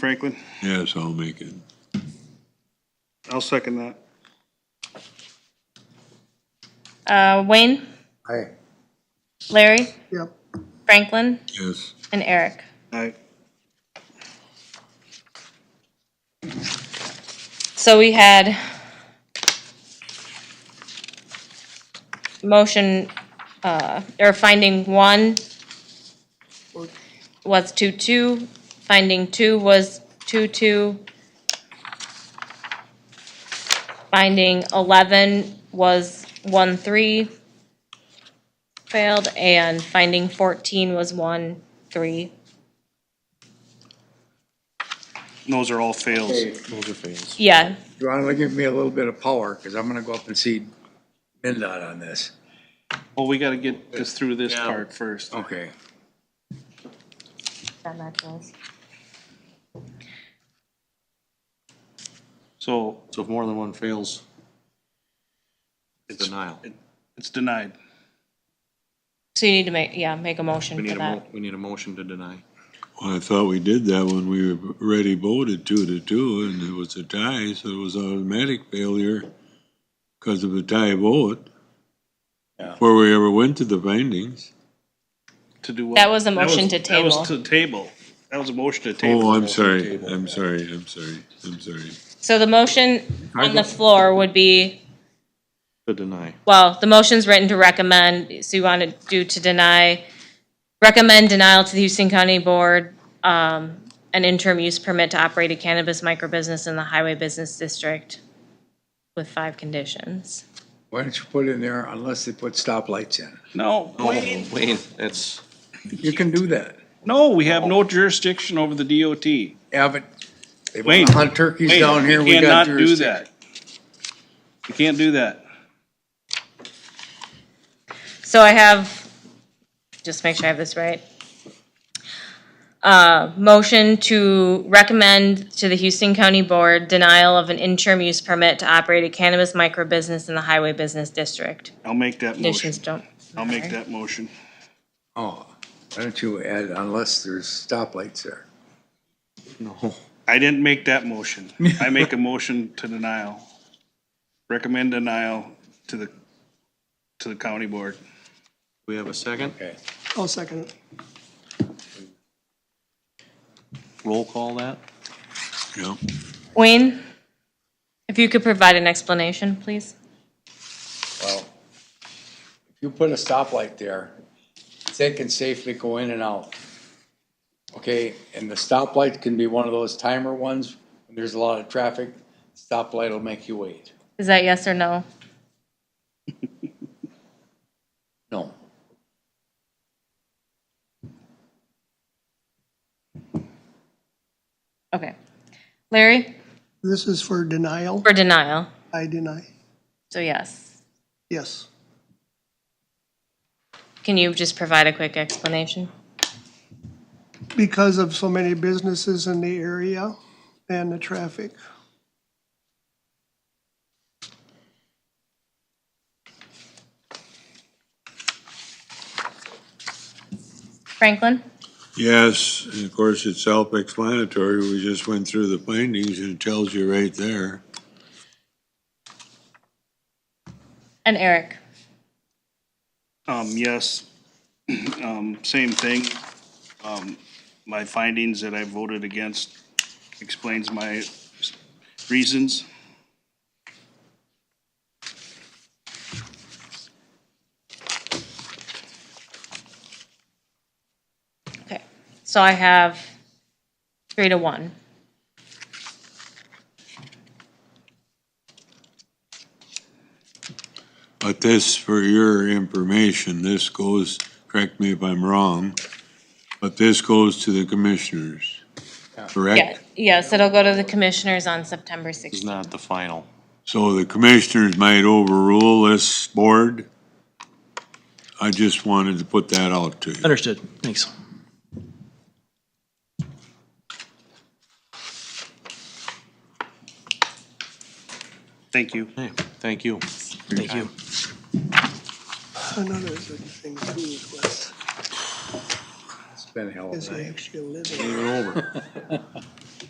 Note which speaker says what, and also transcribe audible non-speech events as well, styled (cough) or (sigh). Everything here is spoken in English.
Speaker 1: Franklin.
Speaker 2: Yes, I'll make it.
Speaker 1: I'll second that.
Speaker 3: Uh, Wayne,
Speaker 4: Aye.
Speaker 3: Larry,
Speaker 4: Yep.
Speaker 3: Franklin,
Speaker 2: Yes.
Speaker 3: and Eric.
Speaker 1: All right.
Speaker 3: So we had motion, uh, or finding one was two, two, finding two was two, two. Finding eleven was one, three, failed, and finding fourteen was one, three,
Speaker 1: Those are all fails.
Speaker 4: Those are fails.
Speaker 3: yeah.
Speaker 4: You want to give me a little bit of power, because I'm going to go up and see MinDOT on this.
Speaker 1: Well, we gotta get this through this part first.
Speaker 4: Okay.
Speaker 3: That matches.
Speaker 1: So
Speaker 5: So if more than one fails,
Speaker 1: it's,
Speaker 5: denial.
Speaker 1: it's denied.
Speaker 3: So you need to make, yeah, make a
Speaker 5: We
Speaker 3: motion
Speaker 5: need
Speaker 3: for
Speaker 5: a, mo-
Speaker 3: that.
Speaker 5: we need a motion to deny.
Speaker 2: Well, I thought we did that when we already voted two to two, and it was a tie, so it was automatic failure because of a tie vote. Before we ever went to the findings.
Speaker 1: To do what?
Speaker 3: That was a motion to
Speaker 1: That was
Speaker 3: table.
Speaker 1: to table. That was a motion to
Speaker 2: Oh,
Speaker 1: table.
Speaker 2: I'm sorry, I'm sorry, I'm sorry, I'm sorry.
Speaker 3: So the motion on the floor would be,
Speaker 5: To deny.
Speaker 3: well, the motion's written to recommend, so you want to do to deny, recommend denial to the Houston County Board, um, an interim use permit to operate a cannabis microbusiness in the Highway Business District with five conditions.
Speaker 4: Why don't you put in there unless they put stoplights in?
Speaker 1: No, Wayne,
Speaker 5: Wayne, that's,
Speaker 4: You can do that.
Speaker 1: no, we have no jurisdiction over the DOT.
Speaker 4: Yeah, but they
Speaker 1: Wayne,
Speaker 4: want to hunt turkeys
Speaker 1: Wayne,
Speaker 4: down here.
Speaker 1: you
Speaker 4: We
Speaker 1: Cannot
Speaker 4: got
Speaker 1: do
Speaker 4: jurisdiction.
Speaker 1: that. You can't do that.
Speaker 3: So I have, just make sure I have this right. Uh, motion to recommend to the Houston County Board denial of an interim use permit to operate a cannabis microbusiness in the Highway Business District.
Speaker 1: I'll make that motion.
Speaker 3: Conditions don't.
Speaker 1: I'll make that motion.
Speaker 4: Oh, why don't you add unless there's stoplights there?
Speaker 5: no.
Speaker 1: I didn't make that motion. I make a motion to denial. Recommend denial to the, to the county board.
Speaker 5: We have a second?
Speaker 4: Okay.
Speaker 6: I'll second it.
Speaker 5: Roll call that?
Speaker 2: Yeah,
Speaker 3: Wayne, if you could provide an explanation, please?
Speaker 4: Well, if you put a stoplight there, they can safely go in and out. Okay, and the stoplight can be one of those timer ones, when there's a lot of traffic, stoplight will make you wait.
Speaker 3: Is that yes or no?
Speaker 4: No.
Speaker 3: Okay. Larry,
Speaker 6: This is for denial.
Speaker 3: for denial,
Speaker 6: I deny.
Speaker 3: so yes.
Speaker 6: Yes.
Speaker 3: Can you just provide a quick explanation?
Speaker 6: Because of so many businesses in the area and the traffic.
Speaker 3: Franklin?
Speaker 2: yes, and of course, it's self-explanatory, we just went through the findings and it tells you right there.
Speaker 3: And Eric?
Speaker 1: Um, yes, (clears throat) um, same thing. Um, my findings that I voted against explains my reasons.
Speaker 3: Okay, so I have three to one.
Speaker 2: But this, for your information, this goes, correct me if I'm wrong, but this goes to the commissioners,
Speaker 3: Yeah,
Speaker 2: correct?
Speaker 3: Yes, it'll go to the commissioners on September
Speaker 5: This is
Speaker 3: 16th.
Speaker 5: not the final.
Speaker 2: So the commissioners might overrule this board? I just wanted to put that out to you.
Speaker 7: Understood. Thanks.
Speaker 1: Thank you.
Speaker 5: Hey, thank you.
Speaker 7: Thank you.
Speaker 6: Another good thing too is with,
Speaker 4: It's been a hell of
Speaker 6: is
Speaker 4: a
Speaker 6: I
Speaker 4: night.
Speaker 6: actually live
Speaker 5: You're
Speaker 6: in,
Speaker 5: over.